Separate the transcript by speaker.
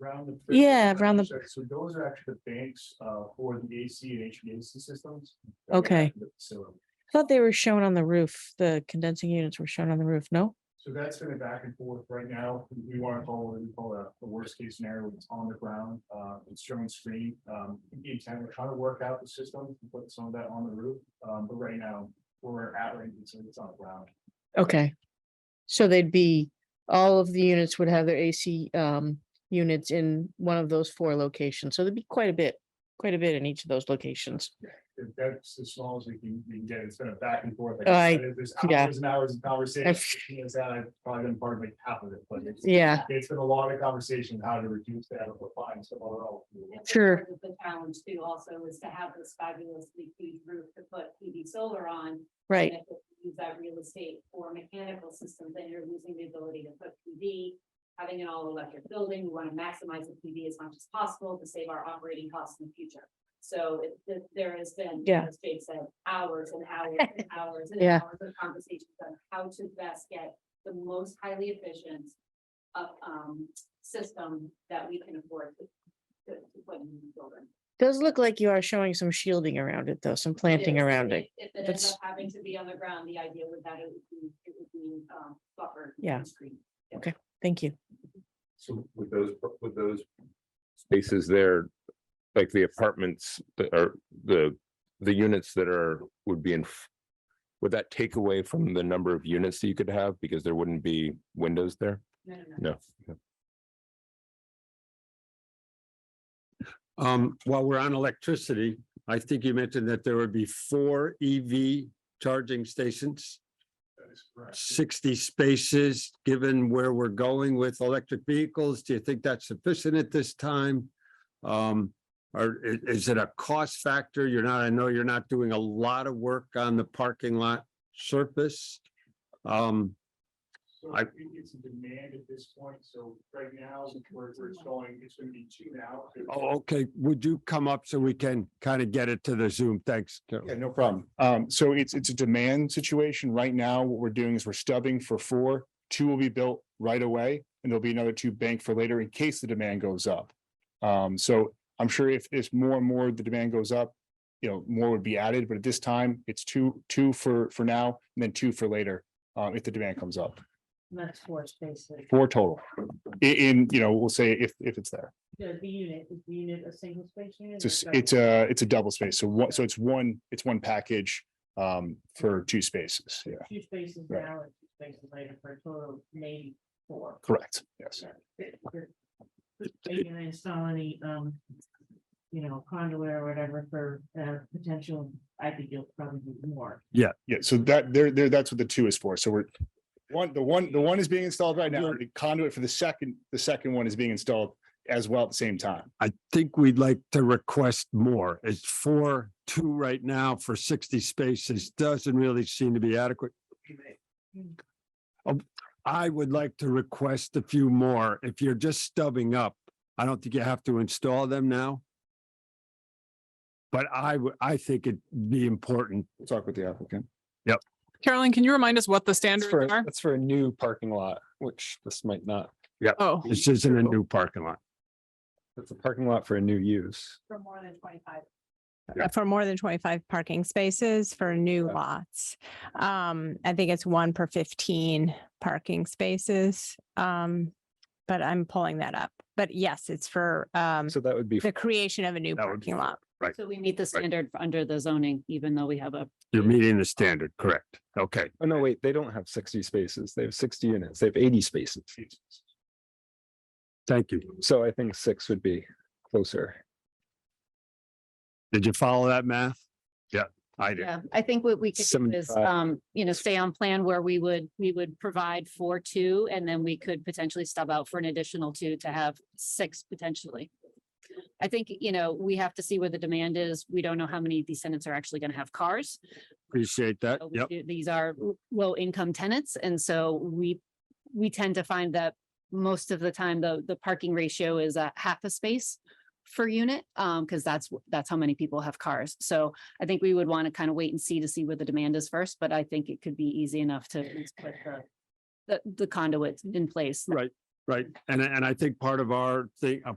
Speaker 1: round the.
Speaker 2: Yeah, round the-
Speaker 1: So so those are actually the banks uh for the AC and HVAC systems.
Speaker 2: Okay.
Speaker 1: So
Speaker 2: I thought they were shown on the roof. The condensing units were shown on the roof. No?
Speaker 1: so that's been a back and forth right now. We want to call what we call a the worst case scenario. It's on the ground, uh it's showing screen. Um the intent, we're trying to work out the system, and put some of that on the roof. Um but right now, where we're at right, now, it's it's on the ground.
Speaker 2: Okay. So they'd be, all of the units would have their AC um units in one of those four locations. So there'd be quite a bit, quite a bit in each of those locations.
Speaker 1: If That's as small as we can we can get. It's been a back and forth. like
Speaker 2: Oh, I-
Speaker 1: said, There's
Speaker 2: yeah.
Speaker 1: hours and hours of conversation. It's, uh, I've Probably been part of like half of it, but it's.
Speaker 2: Yeah,
Speaker 1: It's been a lot of conversation how to reduce that or find some other
Speaker 3: And
Speaker 1: alternative.
Speaker 3: so
Speaker 2: Sure.
Speaker 3: part of The challenge too also is to have this fabulously huge roof to put PV solar on.
Speaker 2: right.
Speaker 3: And if you Use that real estate for mechanical systems, then you're losing the ability to put PV. Having an all electric building, we want to maximize the PV as much as possible to save our operating costs in the future. So it, th- there has been,
Speaker 2: Yeah.
Speaker 3: as Jake said, hours and hours and hours and
Speaker 2: Yeah.
Speaker 3: hours of conversations on how to best get the most highly efficient uh, um, system that we can afford to to, to put in the building.
Speaker 2: Does look like you are showing some shielding around it though, some planting
Speaker 3: Yes,
Speaker 2: around
Speaker 3: if-
Speaker 2: it.
Speaker 3: If it ends
Speaker 2: That's-
Speaker 3: up having to be on the ground, the idea would that it would be, it would be, um, buffered. and
Speaker 2: Yeah.
Speaker 3: screened.
Speaker 2: Thank you.
Speaker 4: So with those, with those spaces there, like the apartments that are the, the units that are, would be in. f- Would that take away from the number of units that you could have because there wouldn't be windows there?
Speaker 3: No, no, no.
Speaker 4: No.
Speaker 5: Um, while we're on electricity, I think you mentioned that there would be four EV charging stations,
Speaker 1: That is correct.
Speaker 5: sixty spaces, given where we're going with electric vehicles. Do you think that's sufficient at this time? Um, or i- is it a cost factor? You're not, I know you're not doing a lot of work on the parking lot surface. Um,
Speaker 1: So
Speaker 5: I-
Speaker 1: it- it's a demand at this point. So right now, we're, we're installing, it's gonna be two now.
Speaker 5: oh, okay, would you come up so we can kind of get it to the Zoom? Thanks. Carol.
Speaker 1: Yeah, no problem. Um, so it's, it's a demand situation. Right now, what we're doing is we're stubbing for four. Two will be built right away and there'll be another two banked for later in case the demand goes up. Um, so I'm sure if, if more and more the demand goes up, you know, more would be added, but at this time, it's two, two for, for now and then two for later, uh, if the demand comes up.
Speaker 6: That's four spaces.
Speaker 1: Four total. I- in, you know, we'll say if, if it's there.
Speaker 6: The, the unit, is the unit a single space unit?
Speaker 1: It's, a s- it's a, it's a double space. So what, so it's one, it's one package, um, for two spaces. Yeah,
Speaker 6: Two spaces
Speaker 1: Right.
Speaker 6: now and two spaces later for a total of maybe four.
Speaker 1: correct. Yes.
Speaker 6: Are you gonna install any, um, you know, conduit or whatever for, uh, potential, I think you'll probably do more.
Speaker 1: Yeah, so that there there that's what the two is for. So we're one, the one, the one is being installed right now. The conduit for the second, the second one is being installed as well at the same time.
Speaker 5: I think we'd like to request more. It's four, two right now for sixty spaces. Doesn't really seem to be adequate. Um, I would like to request a few more. If you're just stubbing up, I don't think you have to install them now. But I would, I think it'd be important.
Speaker 1: We'll talk with the applicant.
Speaker 7: Carolyn, can you remind us what the standards are?
Speaker 1: that's for a new parking lot, which this might not,
Speaker 7: Oh,
Speaker 5: This isn't a new parking lot.
Speaker 1: it's a parking lot for a new use.
Speaker 3: For more than twenty-five.
Speaker 8: uh, for more than twenty-five parking spaces for new lots. Um, I think it's one per fifteen parking spaces. Um, but I'm pulling that up. But yes, it's for um
Speaker 1: that would be.
Speaker 8: the creation of a new
Speaker 5: That would be
Speaker 8: parking lot.
Speaker 5: Right.
Speaker 3: So we meet the standard under the zoning, even though we have a
Speaker 5: You're meeting the standard, correct? Okay.
Speaker 9: Oh, no, wait, they don't have sixty spaces. They have sixty units. They have eighty spaces.
Speaker 5: Thank you.
Speaker 9: So I think six would be closer.
Speaker 5: Did you follow that math? Yeah, I did.
Speaker 10: Yeah, I think what we could do is,
Speaker 9: 75.
Speaker 10: um, you know, stay on plan where we would, we would provide for two and then we could potentially stub out for an additional two to have six potentially. I think, you know, we have to see where the demand is. We don't know how many of these tenants are actually going to have cars.
Speaker 5: Appreciate that.
Speaker 10: So we
Speaker 5: Yep.
Speaker 10: do- These are low income tenants. And so we, we tend to find that most of the time, the, the parking ratio is a half a space per unit, um, because that's, wh- that's how many people have cars. So I think we would want to kind of wait and see to see where the demand is first, but I think it could be easy enough to at least put the, the, the conduits in place.
Speaker 5: Right. Right, and, I- and I think part of our thing, uh, a